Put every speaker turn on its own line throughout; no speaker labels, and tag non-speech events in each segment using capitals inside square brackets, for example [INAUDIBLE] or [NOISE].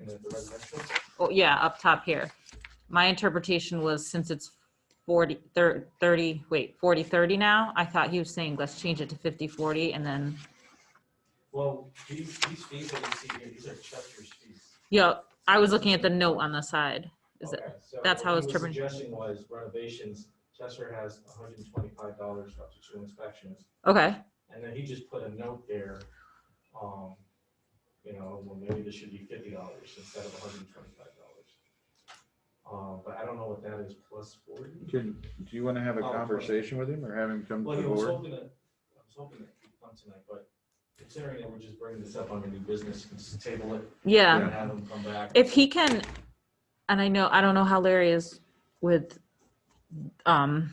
in the residential?
Oh, yeah, up top here. My interpretation was since it's 40, thir- 30, wait, 40, 30 now, I thought he was saying, let's change it to 50, 40, and then,
Well, these, these fees that you see here, these are Chester's fees.
yeah, I was looking at the note on the side. Is it-
Okay, so
that's how
what
it's
he was
determined.
Suggesting was renovations, Chester has hundred and twenty-five dollars up to two inspections,
Okay,
and then he just put a note there. Um, you know, well, maybe this should be fifty dollars instead of hundred and twenty-five dollars. Um, but I don't know what that is, plus forty?
Can, do you want to have a
Oh, okay.
conversation with him or have him come
Well,
to the
yeah, I was
board?
hoping that, I was hoping that he'd come tonight, but considering that we're just bringing this up on the new business, can just table it
yeah.
and have him come back.
If he can, and I know, I don't know how Larry is with, um,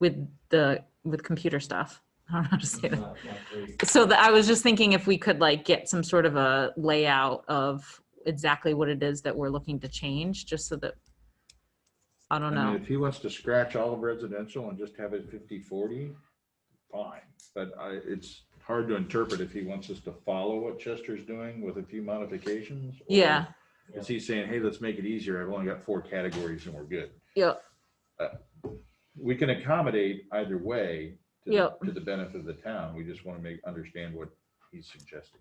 with the, with computer stuff. [LAUGHS] I don't know how to say that.
Not- not great.
So the, I was just thinking if we could like get some sort of a layout of exactly what it is that we're looking to change, just so that, I
I
don't
mean,
know.
if he wants to scratch all of residential and just have it 50-40, fine. But I, it's hard to interpret if he wants us to follow what Chester's doing with a few modifications. or
Yeah.
Is he saying, hey, let's make it easier. I've only got four categories and we're good.
Yeah,
We can accommodate either way to
Yep.
the, to the benefit of the town. We just want to make, understand what he's suggesting.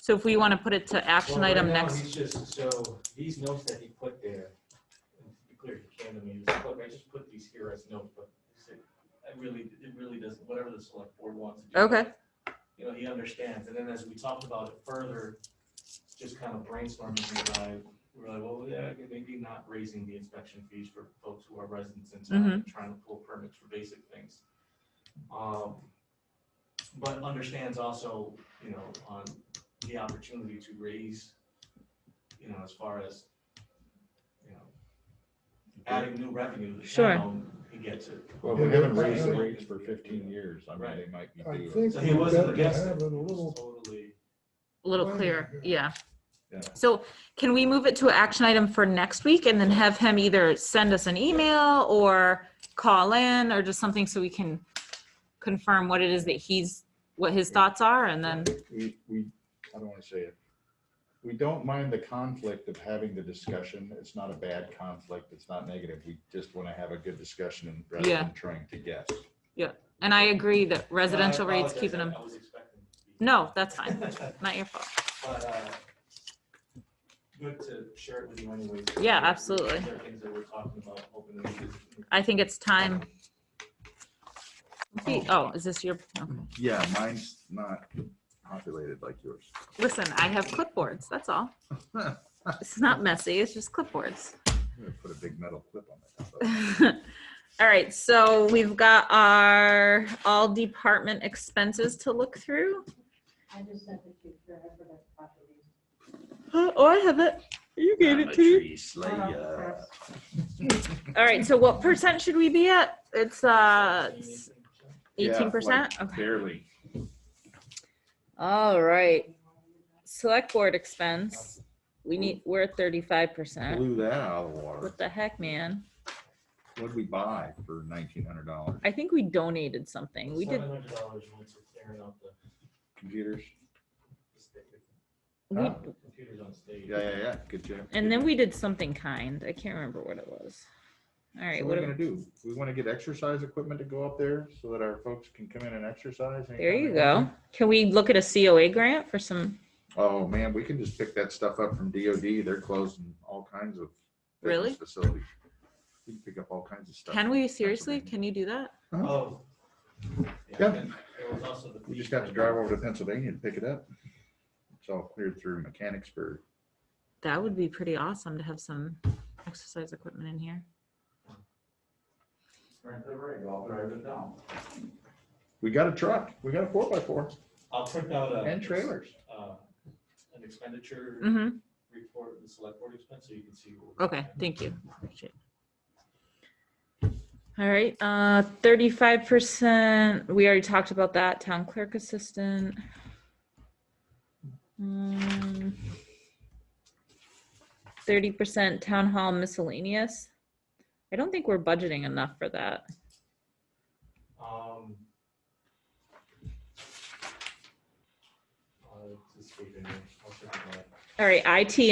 so if we want to put it to action
Well, right
item
now,
next,
He's just, so these notes that he put there, and to be clear, he came to me, he was like, look, I just put these here as notes, but he said, I really, it really doesn't, whatever the select board wants to do.
Okay.
You know, he understands, and then as we talked about it further, just kind of brainstorming, and I, we were like, well, yeah, maybe not raising the inspection fees for folks who are residents in town,
Mm-hmm.
and trying to pull permits for basic things. Um, but understands also, you know, on the opportunity to raise, you know, as far as, you know, adding new revenue to the
Sure.
town, he gets it.
Well,
we haven't raised the
rates for 15
years. I
mean, Right.
they might be
I think
So
we
he wasn't
better
against
have
it.
it a
He was
little,
Totally,
a little
Wait a
clearer,
minute.
yeah.
Yeah.
So can we move it to an action item for next week and then have him either send us an email or call in or just something so we can confirm what it is that he's, what his thoughts are and then,
we, we, I don't want to say it. We don't mind the conflict of having the discussion. It's not a bad conflict. It's not negative. We just want to have a good discussion and rather
Yeah.
than trying to guess.
and I agree that residential
No, I
rates
apologize.
keeping
I-
them,
I was expecting to be-
No, that's fine. not your
[LAUGHS] But,
fault.
uh, good to share it with you anyways.
Yeah, absolutely.
There are things that we're talking about, hoping that we can-
I think it's time.
Um,
Oh, is this your, okay.
Yeah, mine's not populated like yours.
listen, I have clipboards, that's
[LAUGHS]
all. It's not messy, it's just clipboards. [LAUGHS]
I'm gonna Put a big metal clip on the top of it.
All right, so we've got our all department expenses to look through.
I just sent it to you, sure, I forgot to copy these.
Oh, I have it. You
I'm a tree
Uh-huh.
slayer.
Yes.
All right, so what percent should we be at? It's uh
17, 18%.
Yeah, like
eighteen percent? Okay.
Barely.
All right, select board expense. We need, we're at thirty-five percent.
Blew that out of the water.
What the heck, man?
What'd we buy for nineteen hundred dollars?
I think we donated something. We did,
$700 went to clearing out the-
Computers?
the sta-
we,
Huh?
computers on stage.
Yeah, yeah, yeah. Good job.
and then we did something kind. I can't remember what it was. All
So
right,
What
what,
are we
do-
gonna do? We wanna get exercise equipment to go up there so that our folks can come in and exercise.
there
anytime
you
they want
go. Can we look at a COA grant for some?
to. Oh, man, we can just pick that stuff up from DOD. They're closing all kinds of. fitness
Really?
Facilities. We can pick up all kinds of stuff.
Can
from
we seriously?
Pennsylvania.
Can you do that?
Oh.
Yeah.
and There was also the.
We just got to drive over to Pennsylvania and pick it up. It's all cleared through Mechanicsburg.
That would be pretty awesome to have some exercise equipment in here.
Rent the rig, I'll drive it down.
We got a truck. We got a four by four
I'll print out a.
and trailers.
uh, An expenditure
hmm
report, the select board expense, so you can see. what we're
Okay,
doing.
thank you. Appreciate it. All right, uh, thirty-five percent, we already talked about that, town clerk assistant. Mm. Thirty percent town hall miscellaneous. I don't think we're budgeting enough for that.
Um. uh, just leave it in. I'll check it out.
All right, IT